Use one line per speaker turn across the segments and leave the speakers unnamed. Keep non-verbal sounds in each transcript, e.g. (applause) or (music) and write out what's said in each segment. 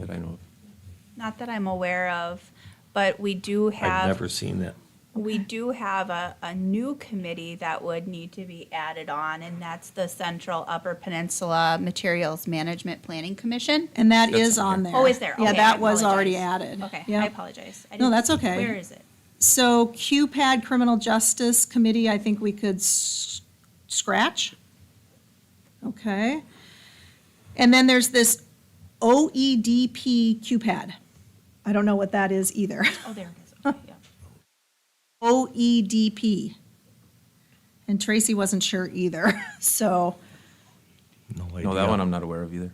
that I know of.
Not that I'm aware of, but we do
I've
have,
never seen that.
we do have a, a new committee that would need to be added on, and that's the Central Upper Peninsula Materials Management Planning Commission.
And that
That's
is on
on
there.
Oh, is there?
Yeah,
Okay, I
that was already
apologize.
added.
Okay,
Yeah.
I apologize. I
No,
didn't-
that's okay.
Where is it?
So QPAD Criminal Justice Committee, I think we could s- scratch. Okay. And then there's this OEDP QPAD. I don't know what that is either. (laughs)
Oh, there it is. Okay, yeah.
OEDP. And Tracy wasn't sure either, (laughs) so,
No, that one I'm not aware of either.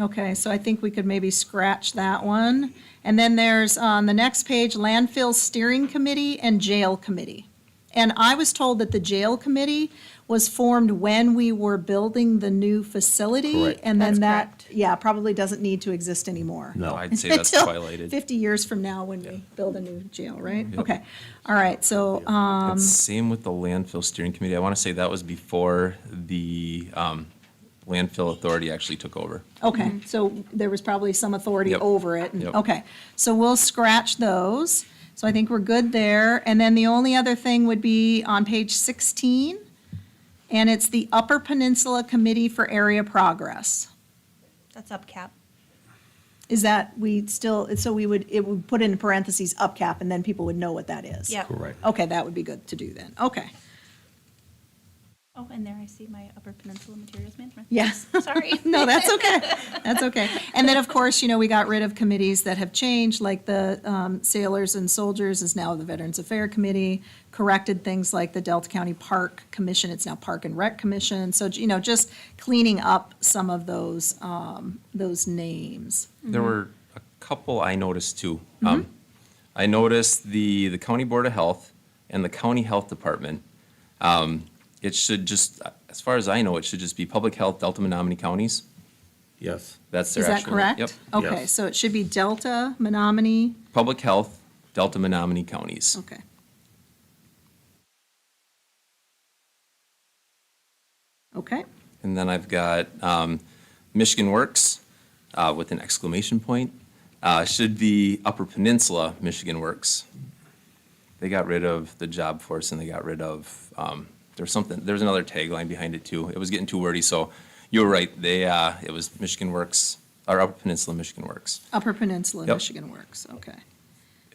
okay, so I think we could maybe scratch that one. And then there's on the next page, landfill steering committee and jail committee. And I was told that the jail committee was formed when we were building the new facility.
Correct.
And then
That's
that,
correct.
yeah, probably doesn't need to exist anymore. (laughs)
No, I'd say that's
Until
twilighted.
Fifty years from now when we build a new jail, right? Okay, all right, so, um,
And same with the landfill steering committee. I want to say that was before the um, landfill authority actually took over.
Okay, so there was probably some authority
Yep.
over it. and-
Yep.
Okay, so we'll scratch those. So I think we're good there. And then the only other thing would be on page 16, and it's the Upper Peninsula Committee for Area Progress.
That's upcap.
Is that, we still, so we would, it would put in parentheses UPCAP, and then people would know what that is?
Yep.
Correct.
Okay, that would be good to do then. Okay.
Oh, and there I see my Upper Peninsula Materials Management.
Yes.
Sorry.
(laughs) No, that's okay. That's okay. And then, of course, you know, we got rid of committees that have changed, like the um, Sailors and Soldiers is now the Veterans Affairs Committee, corrected things like the Delta County Park Commission, it's now Park and Rec Commission. So, you know, just cleaning up some of those, um, those names.
There were a couple I noticed too.
Mm-hmm.
Um, I noticed the, the county board of health and the county health department. Um, It should just, as far as I know, it should just be public health, Delta Menominee counties.
Yes.
That's their
Is that
actual.
correct?
Yep.
Okay,
Yes.
so it should be Delta, Menominee,
Public health, Delta Menominee counties.
okay. Okay.
And then I've got um, Michigan Works uh, with an exclamation point. Uh, Should be Upper Peninsula Michigan Works. They got rid of the job force and they got rid of, um, there's something, there's another tagline behind it too. It was getting too wordy, so you were right. They, uh, it was Michigan Works, or Upper Peninsula Michigan Works.
Upper Peninsula,
Yep.
Michigan Works, okay.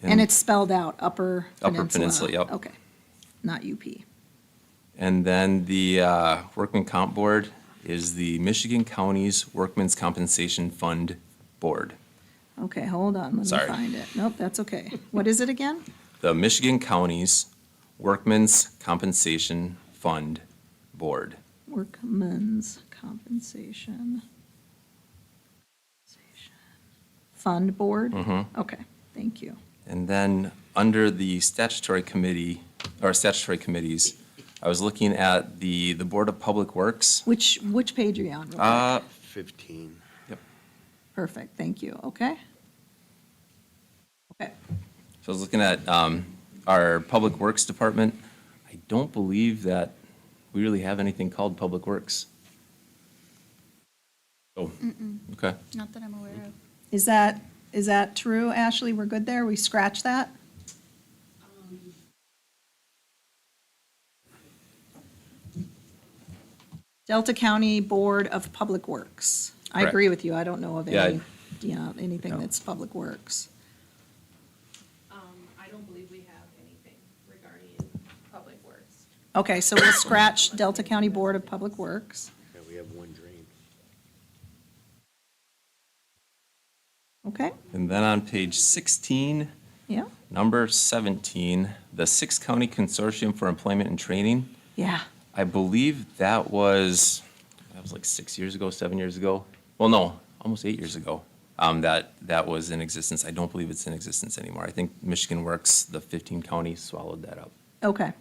And it's spelled out, Upper
Upper
Peninsula?
Peninsula, yep.
Okay, not UP.
And then the uh, Workman Comp Board is the Michigan Counties Workmen's Compensation Fund Board.
Okay, hold on, let me
Sorry.
find it. Nope, that's okay. What is it again?
the Michigan Counties Workmen's Compensation Fund Board.
Workmen's Compensation Fund Board?
Mm-hmm.
Okay, thank you.
And then, under the statutory committee, or statutory committees, I was looking at the, the Board of Public Works.
Which, which page are you on? real quick?
Uh,
15.
Perfect, thank you, okay? Okay,
So I was looking at um, our Public Works Department. I don't believe that we really have anything called Public Works. Oh, okay.
Not that I'm aware of.
is that, is that true, Ashley? We're good there? We scratch that? Delta County Board of Public Works. I
Correct.
agree with you. I don't know of
Yeah, I-
any, yeah, anything
No.
that's Public Works.
Um, I don't believe we have anything regarding public works.
Okay, so we'll scratch Delta County Board of Public Works.
Yeah, we have one drain.
Okay,
And then on page 16,
yeah?
Number 17, the Six County Consortium for Employment and Training.
Yeah.
I believe that was, that was like six years ago, seven years ago. Well, no, almost eight years ago. Um, that, that was in existence. I don't believe it's in existence anymore. I think Michigan Works, the 15 counties swallowed that up.
Okay.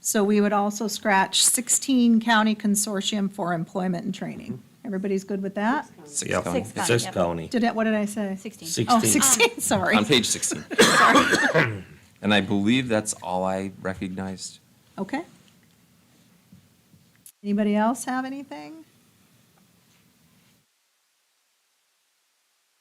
So we would also scratch 16 county consortium for employment and training. Everybody's good with that?
Six
Yep.
counties.
Six counties.
Six
Yep.
county.
Did it, what did I say?
Sixteen.
Six-
Oh,
16.
16, (laughs) sorry.
On page 16. And I believe that's all I recognized.
Okay. Anybody else have anything?